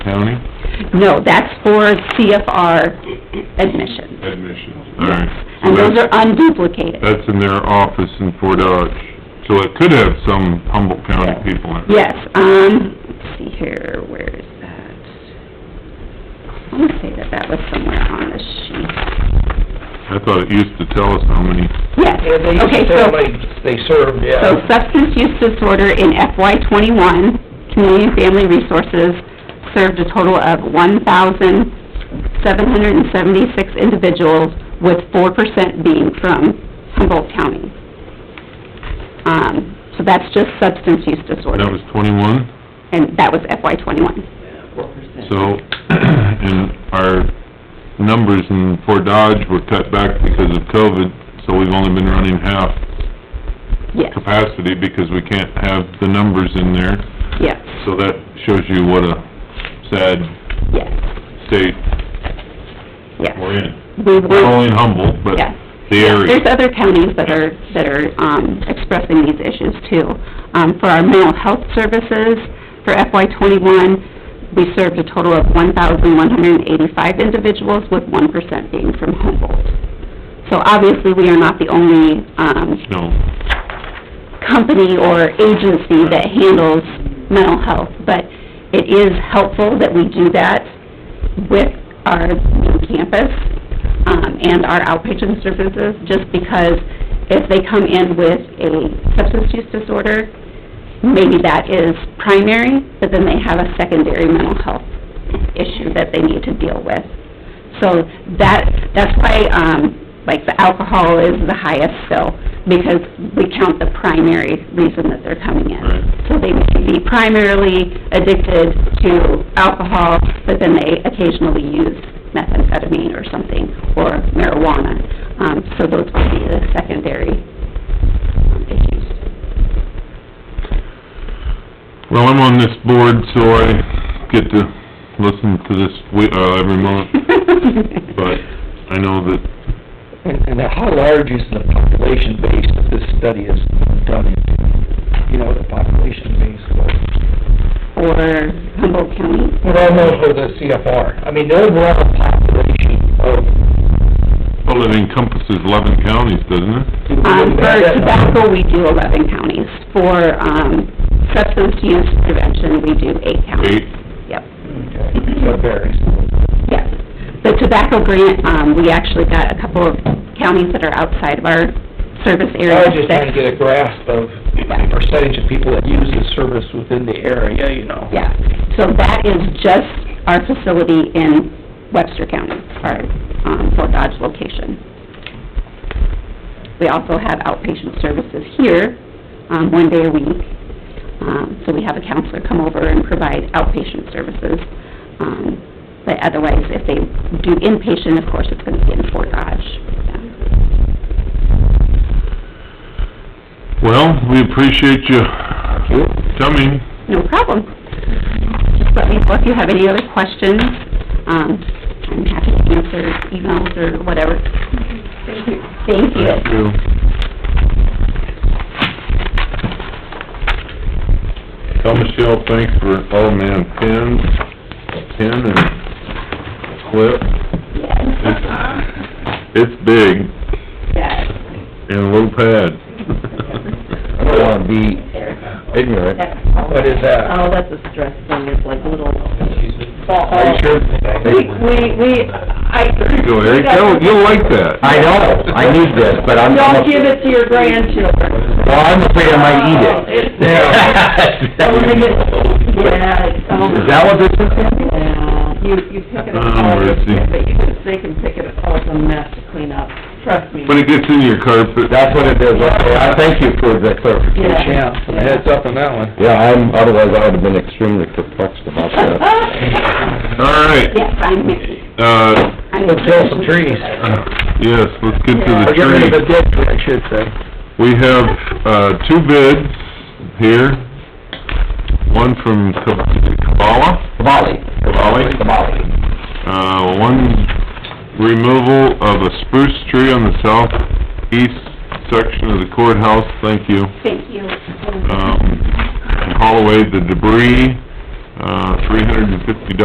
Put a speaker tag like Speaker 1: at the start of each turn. Speaker 1: county?
Speaker 2: No, that's for CFR admissions.
Speaker 1: Admissions. All right. So
Speaker 2: And those
Speaker 1: that's-
Speaker 2: are unduplicated.
Speaker 1: That's in their office in Fort Dodge, so it could have some Humboldt County people in it.
Speaker 2: Yes, um, let's see here, where is that? I wanna say that that was somewhere on the sheet.
Speaker 1: I thought it used to tell us how many,
Speaker 3: Yeah, they,
Speaker 2: Yes, okay, so...
Speaker 3: they, they served,
Speaker 2: So
Speaker 3: yeah.
Speaker 2: substance use disorder in FY twenty-one, Community and Family Resources served a total of one thousand seven hundred and seventy-six individuals, with four percent being from Humboldt County. Um, so that's just substance use
Speaker 1: that
Speaker 2: disorder,
Speaker 1: was twenty-one,
Speaker 2: and that was FY twenty-one.
Speaker 1: so, and our numbers in Fort Dodge were cut back because of COVID, so we've only been running half
Speaker 2: Yes,
Speaker 1: capacity because we can't have the numbers in there,
Speaker 2: yes,
Speaker 1: so that shows you what a sad
Speaker 2: yes,
Speaker 1: state
Speaker 2: yes.
Speaker 1: we're in.
Speaker 2: We
Speaker 1: Not
Speaker 2: were,
Speaker 1: only in Humboldt, but
Speaker 2: yes.
Speaker 1: the area.
Speaker 2: There's other counties that are, that are, um, expressing these issues too. Um, for our mental health services, for FY twenty-one, we served a total of one thousand one hundred and eighty-five individuals, with one percent being from Humboldt. So obviously, we are not the only, um,
Speaker 1: No.
Speaker 2: company or agency that handles mental health, but it is helpful that we do that with our new campus, um, and our outpatient services, just because if they come in with a substance use disorder, maybe that is primary, but then they have a secondary mental health issue that they need to deal with. So that, that's why, um, like the alcohol is the highest still, because we count the primary reason that they're coming in.
Speaker 1: Right.
Speaker 2: So they may be primarily addicted to alcohol, but then they occasionally use methamphetamine or something, or marijuana. Um, so those would be the secondary um, issues.
Speaker 1: Well, I'm on this board, so I get to listen to this we, uh, every month, but I know that,
Speaker 3: And, and how large is the population base that this study is done into? You know, the population base was?
Speaker 2: For Humboldt County,
Speaker 3: Well, no, for the CFR. I mean, the overall population of...
Speaker 1: well, it encompasses eleven counties, doesn't it?
Speaker 2: Um, for tobacco, we do eleven counties. For, um, substance use prevention, we do eight counties.
Speaker 1: Eight,
Speaker 2: Yep,
Speaker 3: Okay, so it varies.
Speaker 2: yep. The tobacco grant, um, we actually got a couple of counties that are outside of our service
Speaker 3: I
Speaker 2: area.
Speaker 3: was just trying to get a grasp of
Speaker 2: Yeah.
Speaker 3: the percentage of people that use this service within the area, you know?
Speaker 2: Yeah, so that is just our facility in Webster County, our, um, Fort Dodge location. We also have outpatient services here, um, one day a week. Um, so we have a counselor come over and provide outpatient services. Um, but otherwise, if they do inpatient, of course, it's gonna be in Fort Dodge. Yeah.
Speaker 1: well, we appreciate you coming,
Speaker 2: No problem. Just let me know if you have any other questions. Um, I'm happy to answer emails or whatever. Thank you. Thank you.
Speaker 1: thank you. Tell Michelle thanks for, oh man, Ken, Ken and Cliff, it's, it's big,
Speaker 2: Yes,
Speaker 1: in a little pad.
Speaker 4: I don't wanna be ignorant.
Speaker 3: What is that?
Speaker 5: Oh, that's a stress thing, it's like little...
Speaker 3: Are you sure?
Speaker 5: We, we, we- I...
Speaker 1: There you go, Eric, you'll, you'll like that.
Speaker 4: I know, I need this, but I'm,
Speaker 5: Don't give
Speaker 4: well,
Speaker 5: it to your grandchildren.
Speaker 4: I'm afraid I might eat
Speaker 5: Oh,
Speaker 4: it.
Speaker 5: it's- So when they get- Yeah, it's, oh...
Speaker 4: Is that what this is, Sandy?
Speaker 5: Yeah, you, you pick it up
Speaker 1: Oh,
Speaker 5: all,
Speaker 1: mercy.
Speaker 5: but you can, they can pick it up all, it's a mess to clean up, trust me.
Speaker 1: When it gets in your carpet.
Speaker 4: That's what it is, okay, I thank you for the clarification.
Speaker 5: Yeah.
Speaker 3: Yeah, some heads up on that one.
Speaker 4: Yeah, I'm, otherwise I would've been extremely perplexed about that.
Speaker 1: All right,
Speaker 2: yes, I'm Mickey.
Speaker 1: uh,
Speaker 2: I'm-
Speaker 3: Let's kill some trees.
Speaker 1: yes, let's get to the
Speaker 3: Or get rid of the
Speaker 1: tree.
Speaker 3: ditch, I should say.
Speaker 1: We have, uh, two bids here. One from Kabala,
Speaker 4: Kamali.
Speaker 1: Kamali?
Speaker 4: Kamali.
Speaker 1: uh, one removal of a spruce tree on the southeast section of the courthouse, thank you.
Speaker 2: Thank you.
Speaker 1: Um, and haul away the debris, uh, three hundred and fifty dollars